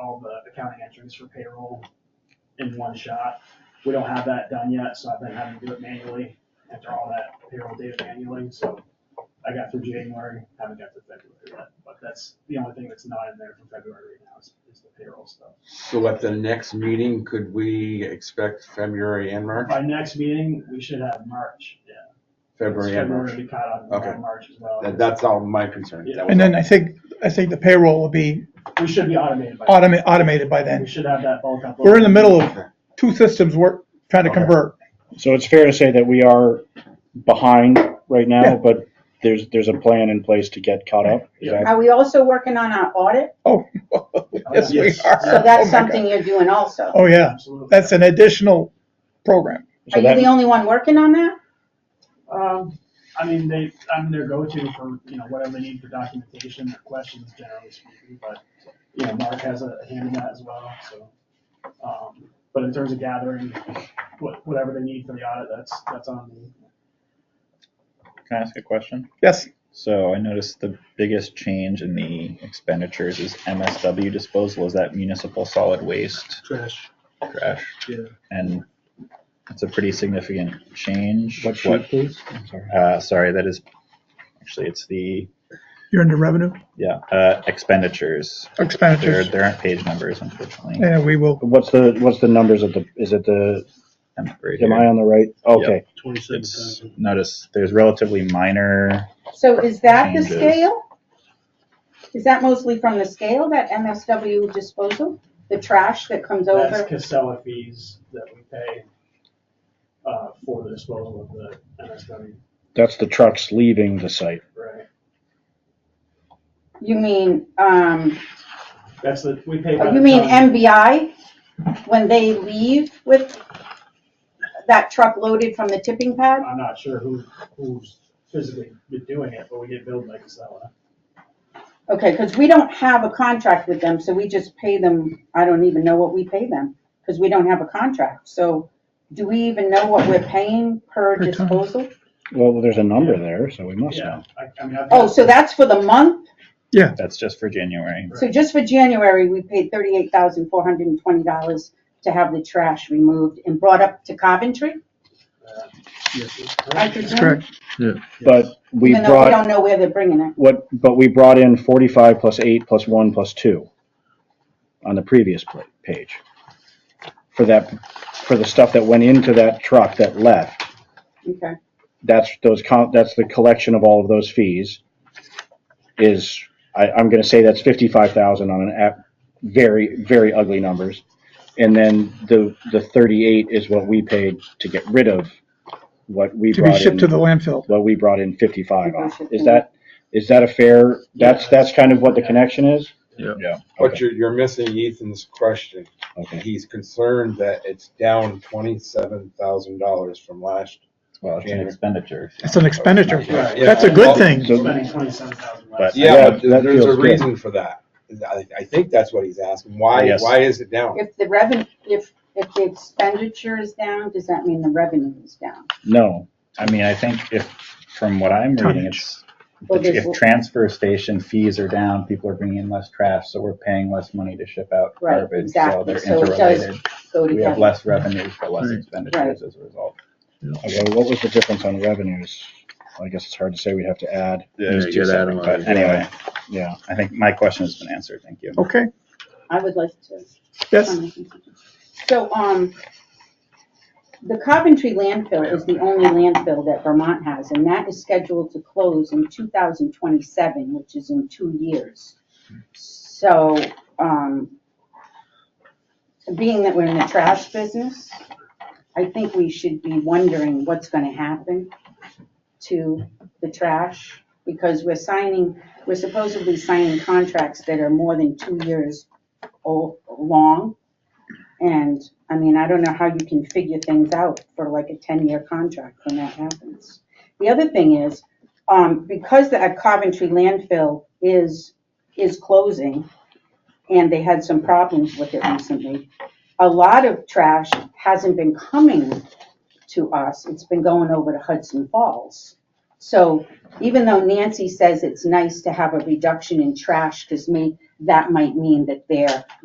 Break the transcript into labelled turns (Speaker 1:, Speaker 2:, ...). Speaker 1: the accounting entries for payroll in one shot. We don't have that done yet, so I've been having to do it manually, enter all that payroll data manually, so I got through January, haven't got to February yet, but that's the only thing that's not in there for February right now is, is the payroll stuff.
Speaker 2: So at the next meeting, could we expect February and March?
Speaker 1: By next meeting, we should have March, yeah.
Speaker 2: February and
Speaker 1: to
Speaker 2: March.
Speaker 1: be caught up by
Speaker 2: Okay.
Speaker 1: March as well.
Speaker 2: That- That's all my concern. That was
Speaker 3: And then
Speaker 2: all.
Speaker 3: I think, I think the payroll will be
Speaker 1: We should be automated by. then.
Speaker 3: automated, automated by
Speaker 1: We
Speaker 3: then.
Speaker 1: should have that bulk up.
Speaker 3: We're in the middle of two systems we're trying to
Speaker 2: Okay.
Speaker 3: convert.
Speaker 4: So it's fair to say that we are behind right
Speaker 3: Yeah.
Speaker 4: now, but there's, there's a plan in place to get caught up. Is
Speaker 1: Yeah.
Speaker 4: that-
Speaker 5: Are we also working on our audit?
Speaker 3: Oh, yes, we
Speaker 2: Yes.
Speaker 3: are.
Speaker 5: So
Speaker 3: Oh,
Speaker 5: that's
Speaker 3: my
Speaker 5: something
Speaker 3: God.
Speaker 5: you're doing also.
Speaker 3: Oh, yeah.
Speaker 1: Absolutely.
Speaker 3: That's an additional program.
Speaker 4: so
Speaker 5: Are you
Speaker 4: that-
Speaker 5: the only one working on that?
Speaker 1: Um, I mean, they, I'm their go-to for, you know, whatever they need for documentation or questions generally speaking, but, you know, Mark has a hand in that as well, so. Um, but in terms of gathering, what, whatever they need for the audit, that's, that's on me.
Speaker 6: Can I ask a question?
Speaker 3: Yes.
Speaker 6: So I noticed the biggest change in the expenditures is MSW disposal. Is that municipal solid waste
Speaker 7: Trash.
Speaker 6: trash?
Speaker 7: Yeah.
Speaker 6: And that's a pretty significant change.
Speaker 7: What sheet, please? I'm sorry.
Speaker 6: Uh, sorry, that is, actually, it's the,
Speaker 3: You're into revenue
Speaker 6: yeah, uh, expenditures. There,
Speaker 3: expenditures.
Speaker 6: there aren't page numbers unfortunately.
Speaker 3: And we will,
Speaker 4: What's the, what's the numbers of the, is it the,
Speaker 6: I'm right
Speaker 4: am I
Speaker 6: here.
Speaker 4: on the right? Okay.
Speaker 7: Twenty-seven
Speaker 6: It's,
Speaker 7: thousand.
Speaker 6: notice, there's relatively minor,
Speaker 5: So is that the
Speaker 6: Changes.
Speaker 5: scale? Is that mostly from the scale, that MSW disposal, the trash that comes
Speaker 1: That's
Speaker 5: over?
Speaker 1: Casella fees that we pay, uh, for the disposal of the MSW,
Speaker 4: That's the trucks leaving the site.
Speaker 1: right?
Speaker 5: You mean, um,
Speaker 1: That's the, we pay. by
Speaker 5: you
Speaker 1: the
Speaker 5: mean
Speaker 1: ton.
Speaker 5: MBI? When they leave with that truck loaded from the tipping pad?
Speaker 1: I'm not sure who, who's physically been doing it, but we get billed by Casella.
Speaker 5: Okay, because we don't have a contract with them, so we just pay them, I don't even know what we pay them, because we don't have a contract. So do we even know what we're paying per
Speaker 3: Per ton.
Speaker 5: disposal?
Speaker 4: Well, there's a number there, so we must
Speaker 1: Yeah,
Speaker 4: know.
Speaker 1: I, I mean, I've.
Speaker 5: Oh, so that's for the month?
Speaker 6: that's just for January.
Speaker 5: So just for January, we paid thirty-eight thousand four hundred and twenty dollars to have the trash removed and brought up to Coventry,
Speaker 1: uh,
Speaker 5: I
Speaker 1: yes,
Speaker 3: that's
Speaker 5: presume?
Speaker 3: correct.
Speaker 4: But we
Speaker 5: Even though we
Speaker 4: brought,
Speaker 5: don't know where they're bringing it.
Speaker 4: what, but we brought in forty-five plus eight plus one plus two on the previous pla- page. For that, for the stuff that went into that truck that left.
Speaker 5: Okay,
Speaker 4: that's those, co- that's the collection of all of those fees is, I, I'm gonna say that's fifty-five thousand on an app, very, very ugly numbers. And then the, the thirty-eight is what we paid to get rid of what we
Speaker 3: To be
Speaker 4: brought
Speaker 3: shipped to the
Speaker 4: in,
Speaker 3: landfill.
Speaker 4: what we brought in fifty-five on.
Speaker 5: Shipped
Speaker 4: Is
Speaker 5: in.
Speaker 4: that, is that a fair, that's,
Speaker 1: Yeah.
Speaker 4: that's kind of what the connection is?
Speaker 2: But you're, you're missing Ethan's question.
Speaker 4: Okay,
Speaker 2: He's concerned that it's down twenty-seven thousand dollars from last.
Speaker 6: Well, it's an
Speaker 2: January.
Speaker 6: expenditure.
Speaker 3: It's an expenditure.
Speaker 2: Yeah, yeah.
Speaker 3: That's a good thing.
Speaker 1: we're Spending twenty-seven thousand less.
Speaker 6: But-
Speaker 2: Yeah,
Speaker 4: That-
Speaker 2: but
Speaker 4: that
Speaker 2: there's a
Speaker 4: feels good.
Speaker 2: reason for that. I, I think that's what he's asking. Why,
Speaker 4: Yes.
Speaker 2: why is it down?
Speaker 5: if the revenue, if, if the expenditure is down, does that mean the revenue is down?
Speaker 4: no,
Speaker 6: I mean, I think if, from what I'm reading, it's,
Speaker 5: Well,
Speaker 6: if-
Speaker 5: there's-
Speaker 6: if transfer station fees are down, people are bringing in less trash, so we're paying less money to ship out
Speaker 5: Right,
Speaker 6: garbage, so
Speaker 5: exactly.
Speaker 6: they're
Speaker 5: So it does
Speaker 6: interrelated.
Speaker 5: Go
Speaker 6: We have
Speaker 5: together.
Speaker 6: less revenues but less
Speaker 7: Right.
Speaker 6: expenditures as a result.
Speaker 4: okay, what was the difference on revenues? I guess it's hard to say, we'd have to add,
Speaker 7: There's
Speaker 6: They're two
Speaker 7: good
Speaker 6: separate,
Speaker 7: atom
Speaker 6: But
Speaker 7: lines.
Speaker 6: anyway,
Speaker 4: yeah.
Speaker 6: I think my question has been answered, thank you.
Speaker 3: Okay.
Speaker 5: I would like to.
Speaker 3: Yes.
Speaker 5: So, um, the Coventry landfill is the only landfill that Vermont has, and that is scheduled to close in two thousand twenty-seven, which is in two years. So, um, being that we're in the trash business, I think we should be wondering what's gonna happen to the trash, because we're signing, we're supposedly signing contracts that are more than two years old, long. And, I mean, I don't know how you can figure things out for like a ten-year contract when that happens. The other thing is, um, because the Coventry landfill is, is closing, and they had some problems with it recently, a lot of trash hasn't been coming to us, it's been going over to Hudson Falls. So even though Nancy says it's nice to have a reduction in trash, because may, that might mean that they're